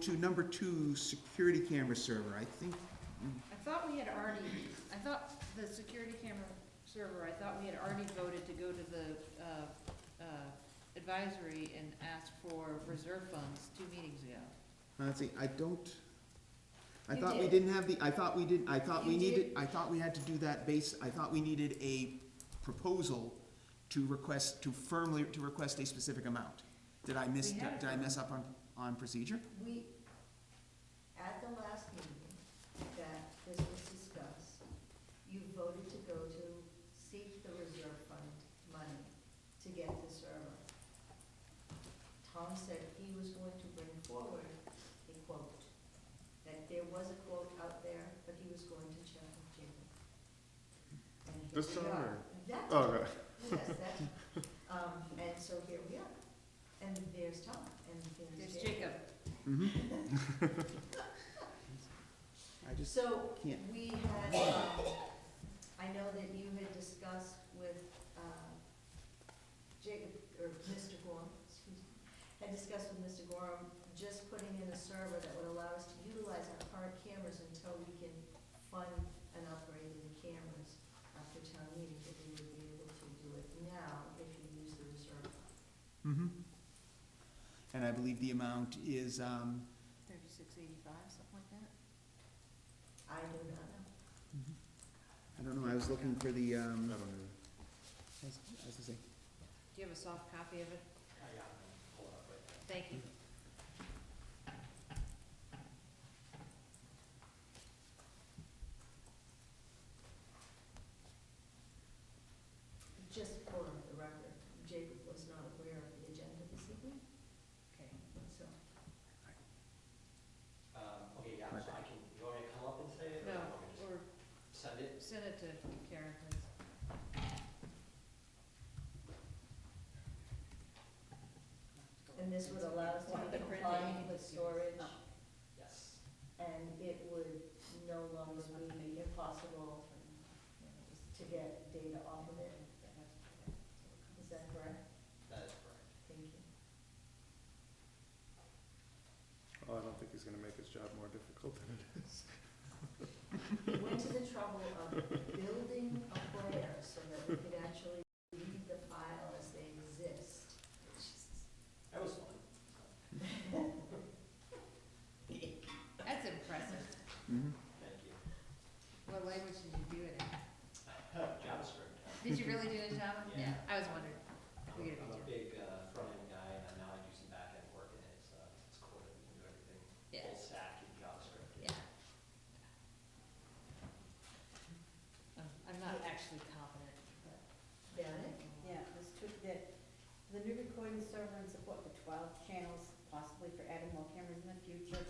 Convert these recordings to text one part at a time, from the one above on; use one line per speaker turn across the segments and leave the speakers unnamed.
to number two, security camera server, I think,
I thought we had already, I thought the security camera server, I thought we had already voted to go to the, uh, uh, advisory and ask for reserve funds two meetings ago.
let's see, I don't, I
You
thought we
did.
didn't have the, I thought we didn't, I thought we
You
needed,
did.
I thought we had to do that base, I thought we needed a proposal to request, to firmly, to request a specific amount. Did I miss,
We had it.
did I mess up on, on procedure?
We, at the last meeting that this was discussed, you voted to go to seek the reserve fund money to get the server. Tom said he was going to bring forward a quote, that there was a quote out there, but he was going to check with Jimmy. And here
This
we
time,
are.
or-
That
Oh, right.
Yes, that, um, and so here we are, and there's Tom, and there's
There's
Jacob.
Jacob.
Mm-hmm. I just,
So,
can't.
we had, um, I know that you had discussed with, uh, Jacob, or Mr. Gorham, excuse me, had discussed with Mr. Gorham, just putting in a server that would allow us to utilize our current cameras until we can fund an upgrade in the cameras after town meeting, that we would be able to do it now if you use the reserve fund.
mm-hmm. And I believe the amount is, um,
Thirty-six eighty-five, something like that?
I do not know.
I don't know, I was looking for the,
I
um,
don't know.
I was I was gonna say,
Do you have a soft copy of it? Thank you.
Just for the record, Jacob was not aware of the agenda this evening,
Okay.
so.
Um, okay, yeah, so I can, you want me to come up and say it, or
No,
you want me to
or
just send it?
send it to Karen, please.
And this would allow us to
One of the print
comply
that you
with
can
storage,
Oh.
Yes.
and it would no longer be impossible to get data off of it. Is that correct?
That is correct.
Thank you.
Oh, I don't think he's gonna make his job more difficult than it is.
We went to the trouble of building a player so that we could actually read the file as they exist.
That was fun.
That's impressive.
mhm.
Thank you.
What language did you do it in?
JavaScript.
Did you really do it in Java?
Yeah.
I was wondering.
I'm
We
a-
get a
I'm a
picture.
big, uh, front-end guy, and now I do some back-end work, and it's, uh, it's cool that you can do everything.
Yeah.
Full stack in JavaScript.
Yeah. Oh, I'm not actually confident, but.
Janet?
Yeah, this took that, the new recording server and support for twelve channels, possibly for adding more cameras in the future,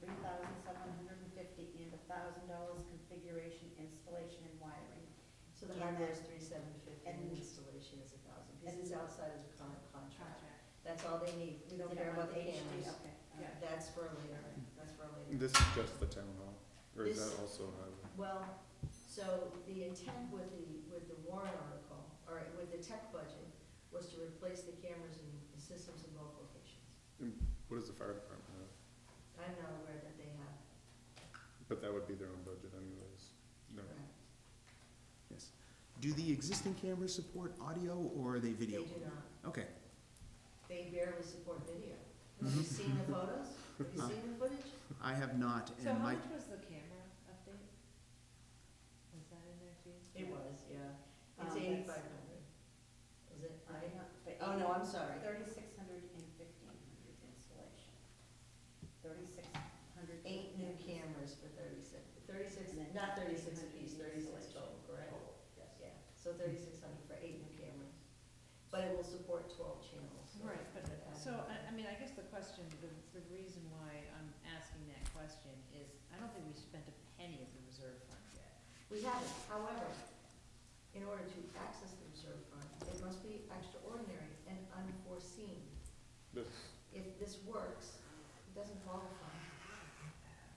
three thousand seven hundred and fifty and a thousand dollars configuration, installation and wiring.
So the hardware is three seven fifty, and
And-
the installation is a thousand,
and-
this is outside of the con- contract.
Contract.
That's all they need, we don't
Did
care
I want
about the
HD?
cameras.
Okay, all
Yeah.
right.
That's for later, that's for later.
This is just the town hall, or is
This-
that also highway?
Well, so the intent with the, with the warrant article, or with the tech budget, was to replace the cameras and the systems in both locations.
What does the fire department have?
I'm not aware that they have.
But that would be their own budget anyways. No,
Yes. Do the existing cameras support audio or are they
They
video?
do not.
Okay,
They barely support video. Have you seen the photos? Have you seen the footage?
I have not,
So
and
how
my,
much was the camera update? Was that in there too?
It was, yeah. It's
Um, that's-
eighty-five hundred. Is it?
I don't know, but
Oh, no, I'm sorry.
Thirty-six hundred and fifteen hundred installation. Thirty-six hundred.
Eight new cameras for thirty-six, thirty-six, not thirty-six apiece, thirty-six total, Mm-hmm. correct? Yeah, so thirty-six hundred for eight new cameras, but it will support twelve channels. so-
Right, but, so, I, I mean, I guess the question, the, the reason why I'm asking that question is, I don't think we spent a penny of the reserve fund yet.
We haven't, however, in order to access the reserve fund, it must be extraordinary and unforeseen.
this,
If this works, it doesn't qualify.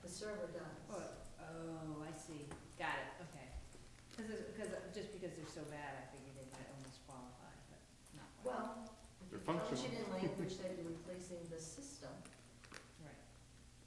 The server does.
Oh, I see, got it, okay. Cause, it's- cause, just because they're so bad, I figured they might almost qualify, but not quite.
Well, if you
They're functional.
function in language that you're replacing the system,